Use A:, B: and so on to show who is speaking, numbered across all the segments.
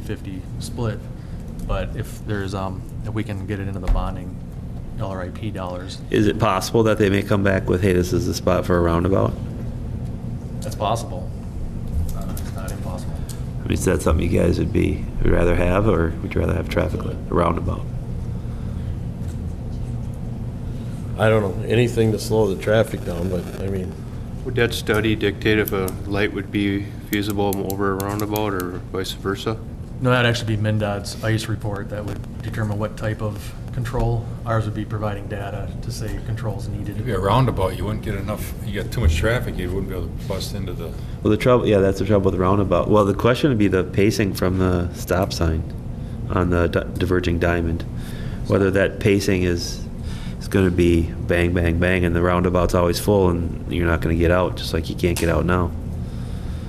A: 50-50 split, but if there's, um, if we can get it into the bonding LRIP dollars,
B: Is it possible that they may come back with, hey, this is the spot for a roundabout?
A: that's possible. It's not- It's not impossible.
B: I mean, is that something you guys would be, would rather have, or would you rather have traffic light, a roundabout?
C: I don't know, anything to slow the traffic down, but I mean,
D: Would that study dictate if a light would be feasible over a roundabout or vice versa?
A: No, that'd actually be MinDOT's ICE report that would determine what type of control. Ours would be providing data to say controls needed.
E: It'd be a roundabout, you wouldn't get enough, you got too much traffic, you wouldn't be able to bust into the,
B: Well, the trouble, yeah, that's the trouble with the roundabout. Well, the question would be the pacing from the stop sign on the di- diverging diamond. Whether that pacing is, is gonna be bang, bang, bang, and the roundabout's always full, and you're not gonna get out, just like you can't get out now.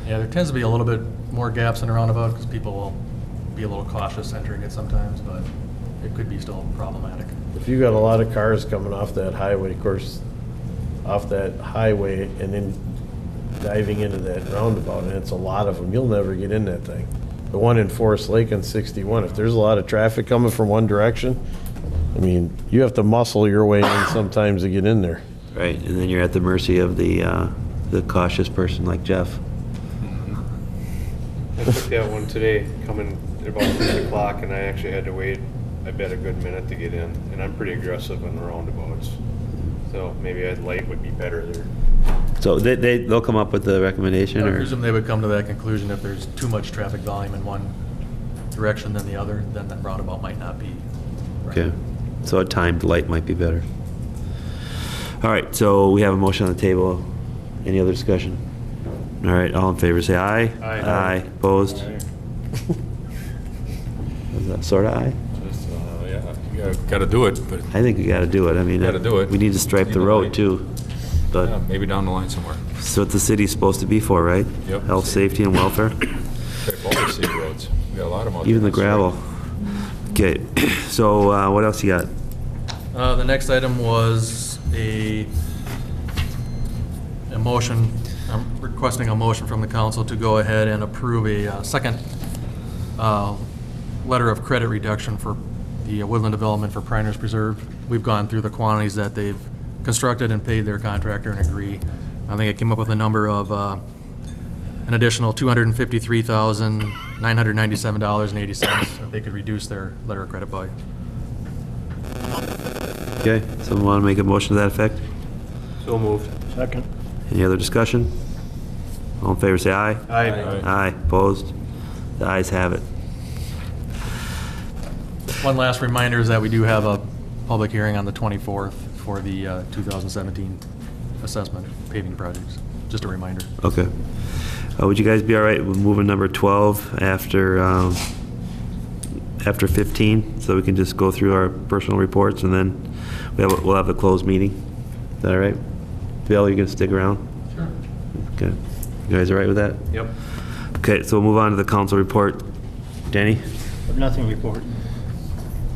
A: Yeah, there tends to be a little bit more gaps in a roundabout because people will be a little cautious entering it sometimes, but it could be still problematic.
C: if you got a lot of cars coming off that highway, of course, off that highway and then diving into that roundabout, and it's a lot of them, you'll never get in that thing. The one in Forest Lake on 61, if there's a lot of traffic coming from one direction, I mean, you have to muscle your way in sometimes to get in there.
B: Right, and then you're at the mercy of the, uh, the cautious person like Jeff.
D: I took that one today, coming at about three o'clock, and I actually had to wait, I bet, a good minute to get in, and I'm pretty aggressive on the roundabouts. So maybe a light would be better there.
B: So they, they, they'll come up with the recommendation,
A: I
B: or?
A: presume they would come to that conclusion if there's too much traffic volume in one direction than the other, then that roundabout might not be. right.
B: Okay, so a timed light might be better. All right, so we have a motion on the table. Any other discussion? All right, all in favor, say aye.
D: Aye.
B: Aye, opposed? Was that Sort of aye?
E: just, uh, yeah, you gotta- gotta do it, but
B: I think we gotta do it, I mean.
E: Gotta do it.
B: We need to stripe the
E: Either way.
B: road, too.
E: yeah,
B: But,
E: maybe down the line somewhere.
B: it's what the city's supposed to be for, right?
E: Yep.
B: Health, safety, and welfare,
E: Check all the city roads, we got a lot of them. out
B: even the
E: there.
B: gravel. Okay, so uh, what else you got?
A: Uh, The next item was a, a motion, I'm requesting a motion from the council to go ahead and approve a uh, second uh, letter of credit reduction for the uh, woodland development for Priner's Preserve. We've gone through the quantities that they've constructed and paid their contractor and agree. I think it came up with a number of uh, an additional $253,997.80 that they could reduce their letter of credit by.
B: Okay, someone wanna make a motion to that effect?
D: So moved.
C: Second.
B: Any other discussion? All in favor, say aye.
D: Aye.
B: Aye, opposed? The ayes have it.
A: One last reminder is that we do have a public hearing on the 24th for the uh, 2017 assessment paving projects. Just a reminder.
B: Okay. Uh, Would you guys be all right with moving number 12 after, um, after 15? So we can just go through our personal reports and then we have, a- we'll have a closed meeting? Is that all right? Bill, you gonna stick around?
A: Sure.
B: Okay. You guys all right with that?
D: Yep.
B: Okay, so we'll move on to the council report. Danny?
F: Nothing reported.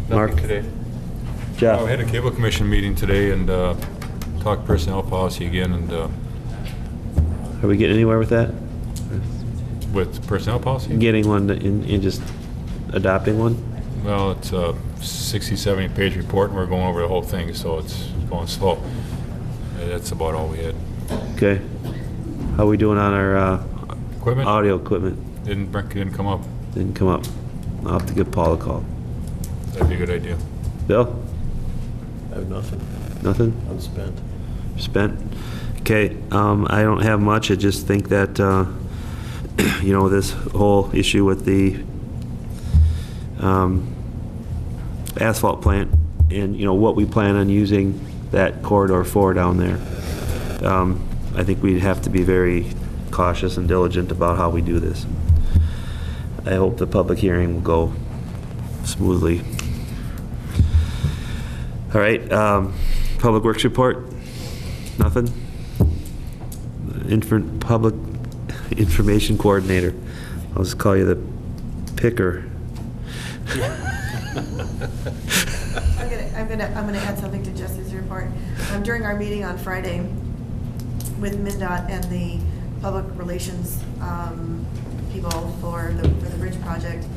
B: Mark?
D: Nothing today.
B: Jeff?
E: Oh, I had a cable commission meeting today and uh, talked personnel policy again and uh,
B: Are we getting anywhere with that?
E: with personnel policy?
B: Getting one and and just adopting one?
E: Well, it's a 60, 70 page report and we're going over the whole thing, so it's going slow. Uh, That's about all we had.
B: Okay. How we doing on our uh,
E: Equipment?
B: audio equipment?
E: Didn't, bring- didn't come up.
B: Didn't come up. I'll have to give Paul a call.
E: That'd be a good idea.
B: Bill?
C: I have nothing,
B: Nothing?
C: unspent.
B: Spent? Okay, um, I don't have much. I just think that, uh, you know, this whole issue with the, um, asphalt plant and, you know, what we plan on using that corridor for down there. Um, I think we'd have to be very cautious and diligent about how we do this. I hope the public hearing will go smoothly. All right, um, Public Works report? Nothing? Infant, Public Information Coordinator. I'll just call you the picker.
G: I'm gonna, I'm gonna, I'm gonna add something to Jesse's report. Um, During our meeting on Friday with MinDOT and the public relations um, people for the, for the bridge project,